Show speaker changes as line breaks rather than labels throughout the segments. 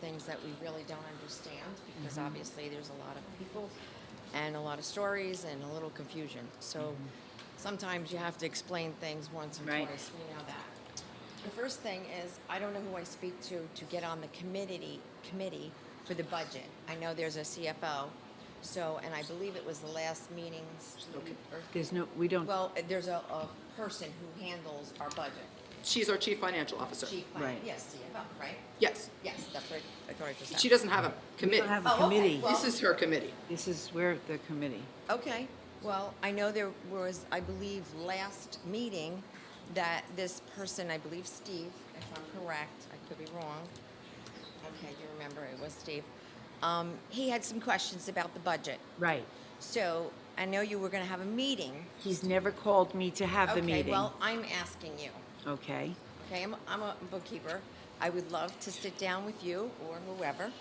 things that we really don't understand because
Mm-hmm.
obviously there's a lot of people and a lot of stories and a little confusion. So sometimes you have to explain things once or
Mm-hmm. Right.
twice. We know that. The first thing is I don't know who I speak to to get on the committee committee for the budget. I know there's a CFO. So, and I believe it was the last meetings. or-
There's no, we don't,
Well, there's a, a person who handles our budget.
She's our chief financial officer.
Chief, fin-
Right.
yes, CFO, right?
Yes.
Yes, that's right. I thought I just
She
said.
doesn't have a committee.
don't have
Oh,
a
okay,
committee.
well-
This is her committee.
This is, where the committee.
Okay, well, I know there was, I believe, last meeting that this person, I believe Steve, if I'm correct, I could be wrong. Okay, you remember it was Steve. Um, he had some questions about the budget.
Right.
So I know you were gonna have a meeting.
He's never called me to have the meeting.
Okay, well, I'm asking you.
Okay.
Okay, I'm, I'm a bookkeeper. I would love to sit down with you or whoever.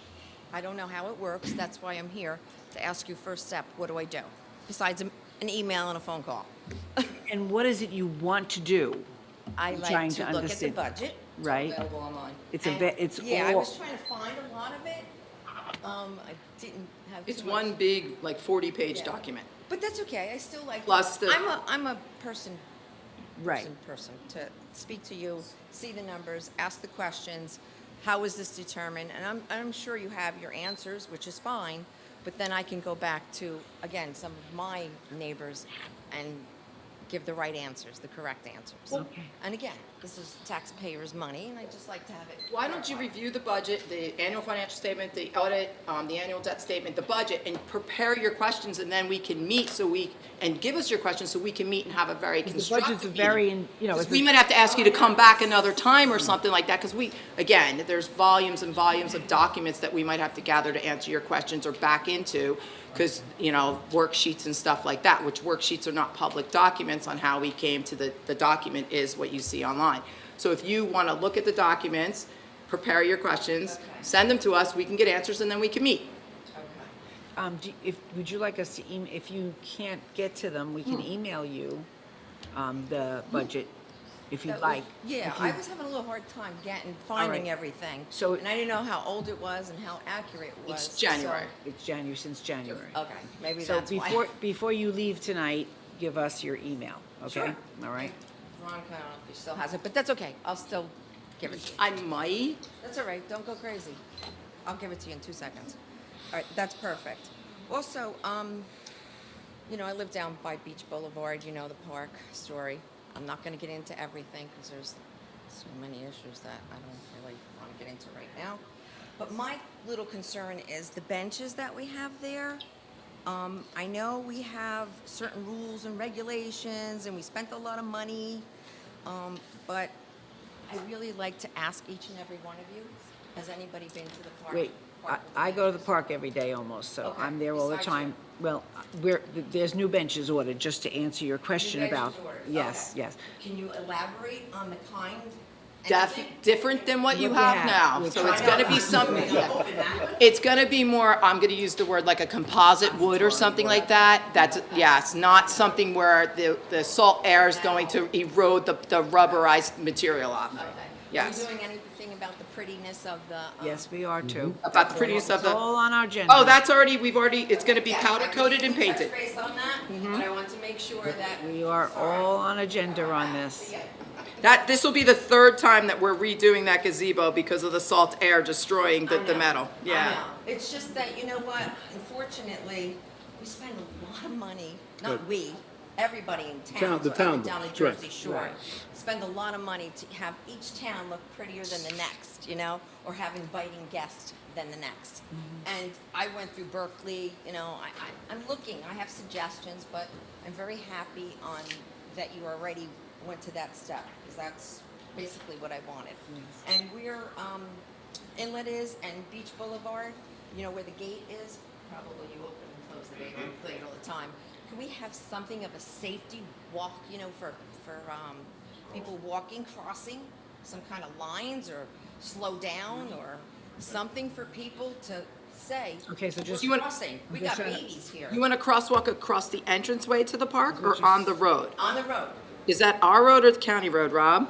I don't know how it works, that's why I'm here, to ask you first step, what do I do? Besides an an email and a phone call.
And what is it you want to do?
I
I'm
like
trying
to
to
look at the
understand.
budget.
Right.
Available online.
It's a
And-
ve- it's
Yeah, I
all-
was trying to find a lot of it. Um, I didn't have.
It's
too much-
one big, like, 40-page
Yeah.
document.
But that's okay, I still like.
Plus the-
I'm a, I'm a person.
Right.
person- Person, to speak to you, see the numbers, ask the questions, how is this determined? And I'm, I'm sure you have your answers, which is fine, but then I can go back to, again, some of my neighbors and give the right answers, the correct answers.
Okay.
And again, this is taxpayers' money, and I just like to have it.
Why don't you review the budget, the annual financial statement, the audit, um, the annual debt statement, the budget, and prepare your questions, and then we can meet so we, and give us your questions so we can meet and have a very
budget's
constructive meeting.
very in- you know,
'Cause
it's
we
a-
might have to ask you to come back another time or something like that, because we, again, there's volumes and volumes of documents that we might have to gather to answer your questions or back into, because, you know, worksheets and stuff like that, which worksheets are not public documents on how we came to the, the document is what you see online. So if you want to look at the documents, prepare your questions, send them to us, we can get answers, and then we can meet.
Um, do, if, would you like us to, em- if you can't get to them, we can email you, um, the budget, if you'd
That was-
like.
Yeah,
If you-
I was having a little hard time getting, finding everything.
So-
And I didn't know how old it was and how accurate it was.
It's January.
so-
It's January, since January.
Okay, Oh, maybe
So
that's why.
before, before you leave tonight, give us your email, okay? All right?
Veronica, I don't know if she still has it, but that's okay. I'll still give it to you.
I might,
That's all right, don't go crazy. I'll give it to you in two seconds. All right, that's perfect. Also, um, you know, I live down by Beach Boulevard, you know, the park story. I'm not gonna get into everything, because there's so many issues that I don't really wanna get into right now. But my little concern is the benches that we have there. Um, I know we have certain rules and regulations, and we spent a lot of money, um, but I really like to ask each and every one of you, has anybody been to the park?
Wait, I,
Park with
I go to the
benches?
park every day almost, so
Okay,
I'm there all the
besides
time. Well, we're, th- there's new benches ordered, just to answer your question
Benches
about.
ordered,
Yes,
okay.
yes.
Can you elaborate on the kind?
def,
anything?
different than what you
What we
have
have.
now,
We're
so it's
I
gonna
know
be
I'm
some,
really
yeah.
open that.
It's gonna be more, I'm gonna use the word like a composite wood or something like that. That's, yes, not something where the, the salt air is going to erode the, the rubberized material off. Yes.
Are you doing anything about the prettiness of the? um,
Yes, we are too.
Mm-hmm. About the prettiness of
It's
the,
all on our agenda.
oh, that's already, we've already, it's gonna be
Yeah,
powder coated and
I think we
painted.
touched base on that, but I want to make sure that.
Mm-hmm. We are
Sorry.
all on agenda on this.
That, this will be the third time that we're redoing that gazebo because of the salt air destroying the, the metal.
I
Yeah.
know. Um, It's just that, you know what, unfortunately, we spend a lot of money, not we, everybody in town.
Town- the
so
town
Down in
does, correct.
Jersey Shore, spend a lot of money to have each town look prettier than the next, you know, or have inviting guests than the next.
Mm-hmm.
And I went through Berkeley, you know, I, I, I'm looking, I have suggestions, but I'm very happy on, that you already went to that step, because that's basically what I wanted. And we're, um, Inlet is and Beach Boulevard, you know, where the gate is, probably you open and close the gate and play it all the time. Can we have something of a safety walk, you know, for, for, um, people walking, crossing, some kind of lines or slow down or something for people to say?
Okay, so
"We're
just-
You want-
Crossing, we got babies here,
You want a crosswalk across the entranceway to the park or on the road?
on the road.
Is that our road or the county road, Rob?